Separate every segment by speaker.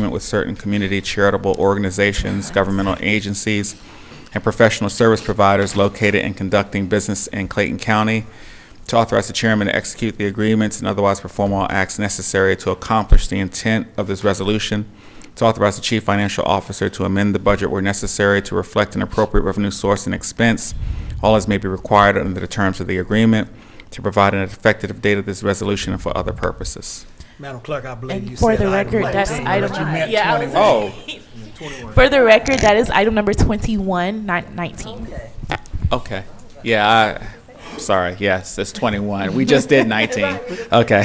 Speaker 1: agreement with certain community charitable organizations, governmental agencies, and professional service providers located and conducting business in Clayton County, to authorize the chairman to execute the agreements and otherwise perform all acts necessary to accomplish the intent of this resolution, to authorize the chief financial officer to amend the budget where necessary to reflect an appropriate revenue source and expense, all as may be required under the terms of the agreement, to provide an effective date of this resolution and for other purposes.
Speaker 2: Madam Clerk, I believe you
Speaker 3: And
Speaker 2: said.
Speaker 3: for the
Speaker 2: item
Speaker 3: record, that's
Speaker 2: 19,
Speaker 3: item.
Speaker 2: but you meant
Speaker 3: yeah, I was-
Speaker 2: 21.
Speaker 1: Oh,
Speaker 3: For the record, that is item number 21, not 19.
Speaker 1: okay. Yeah, I, sorry, yes, it's 21. We just did 19. Okay.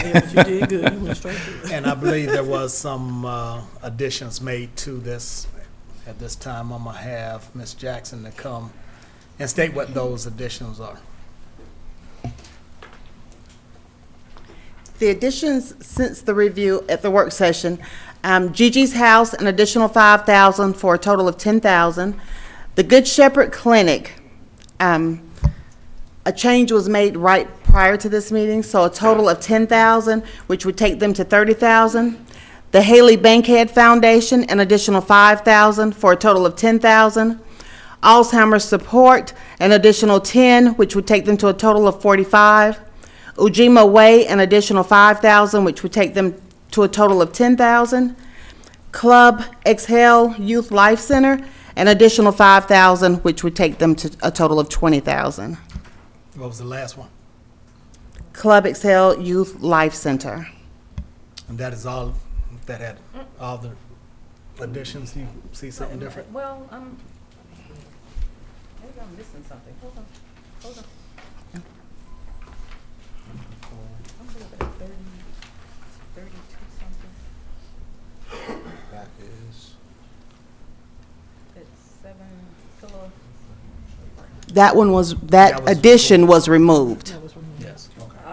Speaker 2: And I believe there was some uh, additions made to this. At this time, I'm gonna have Ms. Jackson to come and state what those additions are.
Speaker 4: The additions since the review at the work session, um, Gigi's House, an additional five thousand for a total of ten thousand. The Good Shepherd Clinic, um, a change was made right prior to this meeting, so a total of ten thousand, which would take them to thirty thousand. The Haley Bankhead Foundation, an additional five thousand for a total of ten thousand. Alzheimer's Support, an additional ten, which would take them to a total of forty-five. Ujima Way, an additional five thousand, which would take them to a total of ten thousand. Club Exhale Youth Life Center, an additional five thousand, which would take them to a total of twenty thousand.
Speaker 2: What was the last one?
Speaker 4: Club Excel Youth Life Center.
Speaker 2: And that is all, that had all the additions. You see something different?
Speaker 5: Well, um, maybe I'm missing something. Hold on, hold on. I'm looking at thirty, thirty-two something.
Speaker 6: That is,
Speaker 5: It's seven, it's a little,
Speaker 4: That one was,
Speaker 2: That
Speaker 4: that
Speaker 2: was-
Speaker 4: addition was removed.
Speaker 2: Yes. Okay. That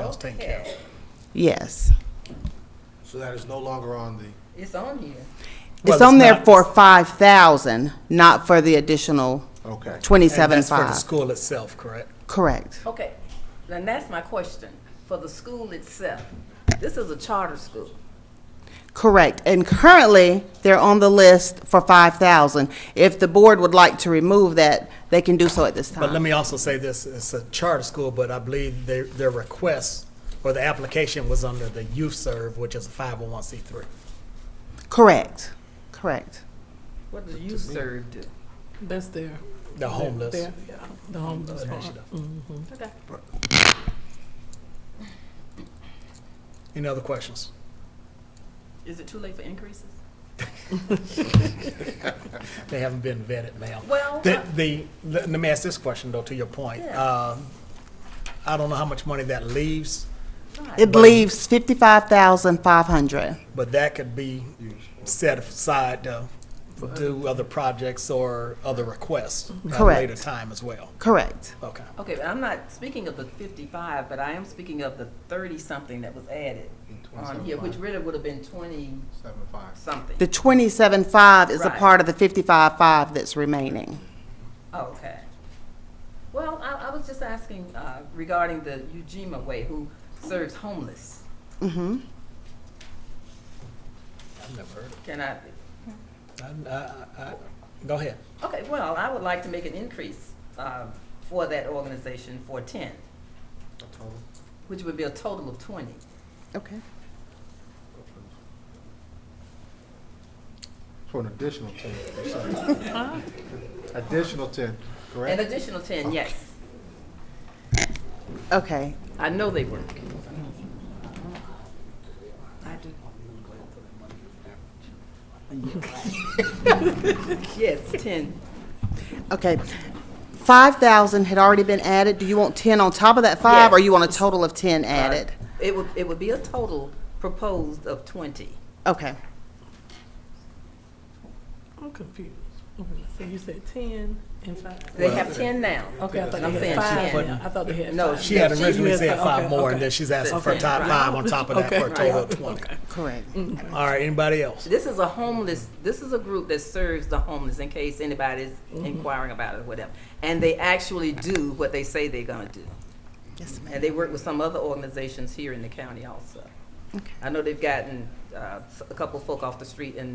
Speaker 5: oh,
Speaker 2: was taken care of.
Speaker 4: Yes.
Speaker 6: so that is no longer on the,
Speaker 5: it's on here.
Speaker 2: Well,
Speaker 4: It's on there
Speaker 2: not-
Speaker 4: for five thousand, not for the additional
Speaker 6: okay.
Speaker 2: And
Speaker 4: twenty-seven
Speaker 2: that's for the
Speaker 4: five.
Speaker 2: school itself, correct?
Speaker 4: Correct.
Speaker 5: Okay, and that's my question, for the school itself. This is a charter school.
Speaker 4: Correct. And currently, they're on the list for five thousand. If the board would like to remove that, they can do so at this
Speaker 2: But let
Speaker 4: time.
Speaker 2: me also say this, it's a charter school, but I believe their, their request or the application was under the Youth Serve, which is a 501c3.
Speaker 4: Correct. Correct.
Speaker 5: What do you serve do?
Speaker 7: That's there.
Speaker 2: The homeless.
Speaker 7: There. The homeless part.
Speaker 2: initiative.
Speaker 5: Okay.
Speaker 2: Any other questions?
Speaker 5: Is it too late for increases?
Speaker 2: They haven't been vetted, ma'am.
Speaker 5: Well,
Speaker 2: The, the, let let me ask this question though, to your point.
Speaker 5: Yeah.
Speaker 2: Um, I don't know how much money that leaves,
Speaker 4: It leaves fifty-five thousand five hundred.
Speaker 2: but that could be set aside to do other projects or other requests at a later
Speaker 4: Correct.
Speaker 2: time as well.
Speaker 4: Correct.
Speaker 2: Okay.
Speaker 5: Okay, but I'm not speaking of the fifty-five, but I am speaking of the thirty-something that was added on here, which really would have been twenty-something.
Speaker 6: Seven five.
Speaker 4: The twenty-seven five is a
Speaker 5: Right.
Speaker 4: part of the fifty-five five that's remaining.
Speaker 5: Oh, Okay. Well, I, I was just asking uh, regarding the Ujima Way, who serves homeless.
Speaker 4: Mm-hmm.
Speaker 2: I've never heard
Speaker 5: Can I,
Speaker 2: of it. I- I- I- Go ahead.
Speaker 5: okay, well, I would like to make an increase um, for that organization for ten,
Speaker 6: Total.
Speaker 5: which would be a total of twenty.
Speaker 4: Okay.
Speaker 6: For an additional ten, you said. Additional ten,
Speaker 5: An
Speaker 6: correct?
Speaker 5: additional ten, yes.
Speaker 4: Okay.
Speaker 5: I know they work. I do. Yes, ten.
Speaker 4: Okay. Five thousand had already been added. Do you want ten on top of that five, or
Speaker 5: Yes.
Speaker 4: you want a total of ten added?
Speaker 5: It would, it would be a total proposed of twenty.
Speaker 4: Okay.
Speaker 7: I'm confused. So you said ten and five.
Speaker 5: They have ten now.
Speaker 7: Okay, I thought
Speaker 5: I'm
Speaker 7: they
Speaker 5: saying
Speaker 7: had five
Speaker 5: ten.
Speaker 7: now. I thought they had five.
Speaker 5: No,
Speaker 2: She had
Speaker 5: She-
Speaker 2: originally
Speaker 7: you
Speaker 2: said
Speaker 7: had-
Speaker 2: five
Speaker 7: okay,
Speaker 2: more, and
Speaker 7: okay.
Speaker 2: then she's asking for a
Speaker 5: Okay.
Speaker 2: top five on top of that for a
Speaker 7: Okay.
Speaker 2: total of twenty.
Speaker 4: Correct.
Speaker 2: All right, anybody else?
Speaker 5: This is a homeless, this is a group that serves the homeless in case anybody's
Speaker 4: Mm-hmm.
Speaker 5: inquiring about it or whatever. And they actually do what they say they're gonna do.
Speaker 4: Yes, ma'am.
Speaker 5: And they work with some other organizations here in the county also. I know they've gotten uh, s- a couple folk off the street in